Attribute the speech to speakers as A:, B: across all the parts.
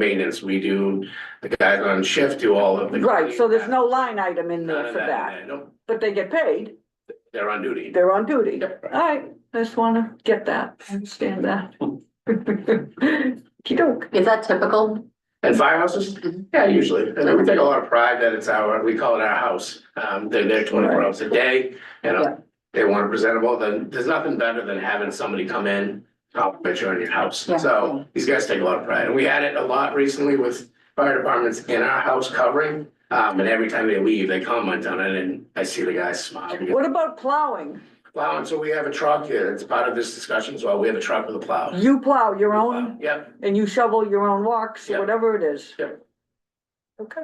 A: maintenance, we do, the guys on shift do all of the.
B: Right, so there's no line item in there
A: None of
B: for that,
A: in there. Nope,
B: but they get paid,
A: they're on duty.
B: they're on duty.
A: Yep.
B: I just wanna get that, understand that. Okey-doke.
C: Is that typical?
A: And firehouses, yeah, usually, and then we take a lot of pride that it's our, we call it our house, um, they're there twenty-four hours a day, you know. They want it presentable, then there's nothing better than having somebody come in, compliment you on your house,
C: Yeah,
A: so these guys take a lot of pride, and we had it a lot recently with. Fire departments in our house covering, um, and every time they leave, they comment on it, and I see the guys smile.
B: What about plowing?
A: Plow, and so we have a truck here, it's part of this discussion as well, we have a truck with a plow.
B: You plow your own
A: Yep,
B: and you shovel your own walks,
A: Yeah.
B: whatever it is.
A: Yep.
B: Okay,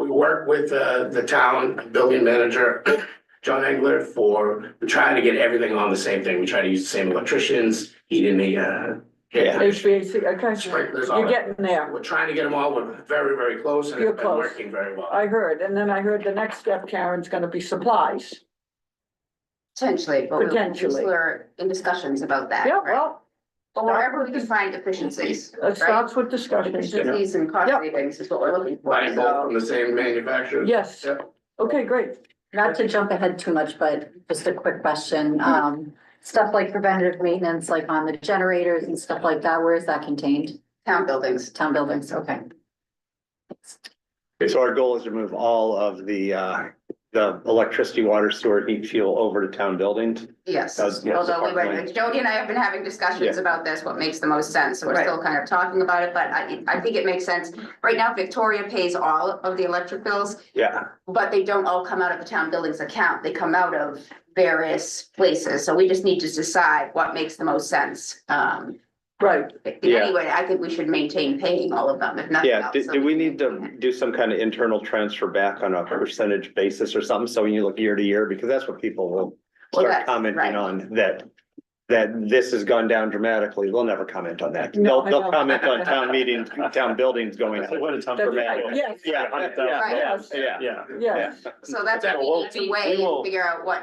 A: we work with, uh, the town building manager, John Engler, for, we try to get everything on the same thing, we try to use the same electricians, heating the, uh, yeah,
B: HVAC, okay,
A: sprinklers, all
B: you're
A: that.
B: getting there,
A: We're trying to get them all, we're very, very close, and
B: You're
A: it's been
B: close.
A: working very well.
B: I heard, and then I heard the next step, Karen's gonna be supplies.
C: Potentially, but we-
B: Potentially.
C: we're in discussions about that.
B: Yeah,
C: right?
B: well,
C: But wherever we can find efficiencies,
B: it
C: right?
B: starts with discussions,
C: Efficiencies and cost
B: Yeah.
C: savings is what we're looking for.
A: Buying both from the same manufacturer.
B: yes,
A: Yep.
B: okay, great.
D: Not to jump ahead too much, but just a quick question, um, stuff like preventative maintenance, like on the generators and stuff like that, where is that contained?
C: Town buildings.
D: Town buildings, okay.
E: So our goal is to move all of the, uh, the electricity, water, sewer, heat, fuel over to town buildings.
C: Yes,
E: That's- yeah,
C: although we
E: department.
C: were, Jody and I have been having discussions
E: Yeah.
C: about this, what makes the most sense, so we're
B: Right.
C: still kind of talking about it, but I, I think it makes sense. Right now Victoria pays all of the electric bills,
E: Yeah,
C: but they don't all come out of the town buildings account, they come out of various places, so we just need to decide what makes the most sense. Um,
B: Right,
E: Yeah.
C: anyway, I think we should maintain paying all of them, if nothing
E: yeah.
C: else.
E: Do,
C: so
E: do we
C: can
E: need
C: maintain it.
E: to do some kind of internal transfer back on a percentage basis or something? So when you look year to year, because that's what people will
C: Well,
E: start
C: that's right.
E: commenting on, that, that this has gone down dramatically. They'll never comment on that.
B: No,
E: They'll,
B: I know.
E: they'll comment on town meetings, town buildings going up.
B: that's right, yes,
E: Yeah, yeah,
C: Right.
E: yeah.
F: Yeah.
B: yes,
C: So that's
F: Yeah,
C: what we
F: well,
C: need to
F: we
C: weigh
F: will-
C: and figure out what,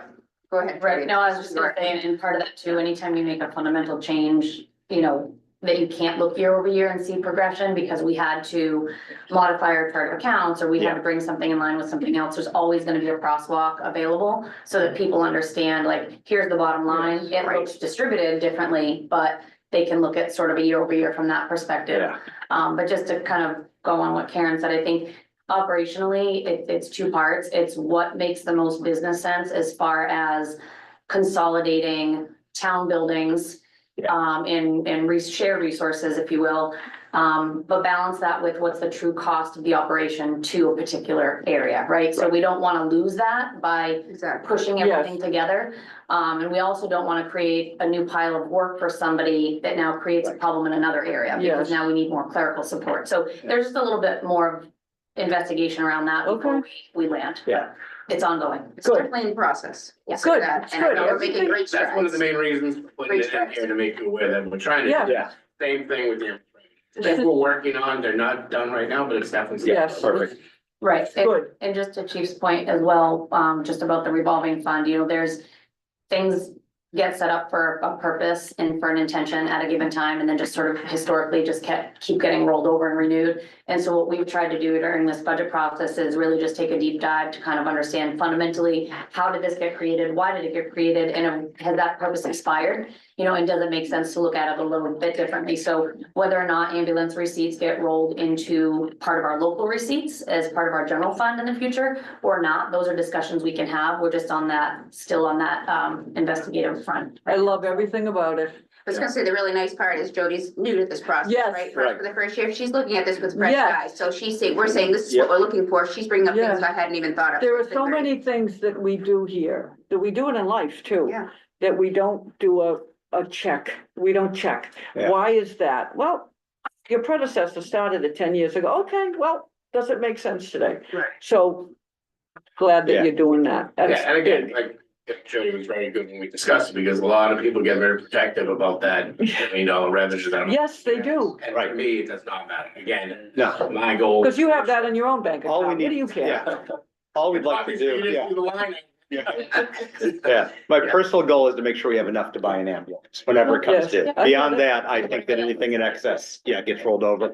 C: go ahead.
D: Right,
C: Jody.
D: no, I was just gonna say, and- and part of that too, anytime you make a fundamental change, you know, that you can't look year over year and see progression, because we had to modify our chart of accounts, or we had to bring something in line with something else, there's always gonna be a crosswalk available, so that people understand, like, here's the bottom line, it
C: Right.
D: looks distributed differently, but they can look at sort of a year over year from that perspective.
E: Yeah,
D: Um, but just to kind of go on what Karen said, I think operationally, it, it's two parts. It's what makes the most business sense as far as consolidating town buildings
E: Yeah.
D: um, and, and re- share resources, if you will. Um, but balance that with what's the true cost of the operation to a particular area, right? So we don't want to lose that by
C: Exactly.
D: pushing
B: Yes.
D: everything together. Um, and we also don't want to create a new pile of work for somebody that now creates a problem in another area.
B: Yes.
D: Because now we need more clerical support. So there's just a little bit more of investigation around that before we land.
E: yeah.
D: It's ongoing.
C: It's
B: Good.
C: definitely in process.
D: Yeah.
C: So
B: Good,
C: that-
B: it's
C: And I know
B: good.
C: we're making great
A: That's one of the
C: strides.
A: main reasons for putting it in here to make you aware that we're trying to
B: Yeah.
A: do
E: Yeah,
A: the same thing with the. Things we're working on, they're not done right now, but it's definitely.
B: Yes.
E: perfect.
D: Right. And-
B: good,
D: And just to Chief's point as well, um, just about the revolving fund, you know, there's things get set up for a purpose and for an intention at a given time, and then just sort of historically just kept, keep getting rolled over and renewed. And so what we've tried to do during this budget process is really just take a deep dive to kind of understand fundamentally, how did this get created? Why did it get created? And um, has that purpose expired? You know, and does it make sense to look at it a little bit differently? So whether or not ambulance receipts get rolled into part of our local receipts as part of our general fund in the future or not, those are discussions we can have. We're just on that, still on that um investigative front.
B: I love everything about it,
C: I was gonna say, the really nice part is Jody's new to this process,
B: Yes.
C: right? For for the first year, she's looking at this with fresh
B: Yes.
C: eyes. So she's saying, we're saying, this is what we're looking for. She's bringing up
B: Yeah.
C: things I hadn't even thought of.
B: there are
C: It's been
B: so
C: great.
B: many things that we do here, that we do it in life too.
C: Yeah.
B: That we don't do a, a check, we don't check,
E: Yeah.
B: why is that? Well, your predecessor started it ten years ago, okay, well, does it make sense today?
C: Right.
B: So, glad
E: Yeah.
B: that you're doing that. That's
A: Yeah, and again, like, Jody was very good when we discussed it, because a lot of people get very protective about that, you know, revenue that.
B: big. Yes, they do,
A: And for
E: Right.
A: me, it does not matter, again,
E: No,
A: my goal.
B: because you have that in your own bank
E: All
B: account,
E: we
B: what
E: need-
B: do you care?
E: yeah. All we'd like to do, yeah. Yeah.
A: yeah.
E: Yeah, my
A: Yeah.
E: personal goal is to make sure we have enough to buy an ambulance whenever it comes
B: Yes.
E: due.
B: Yeah.
E: Beyond that, I think that anything in excess, yeah, gets rolled over.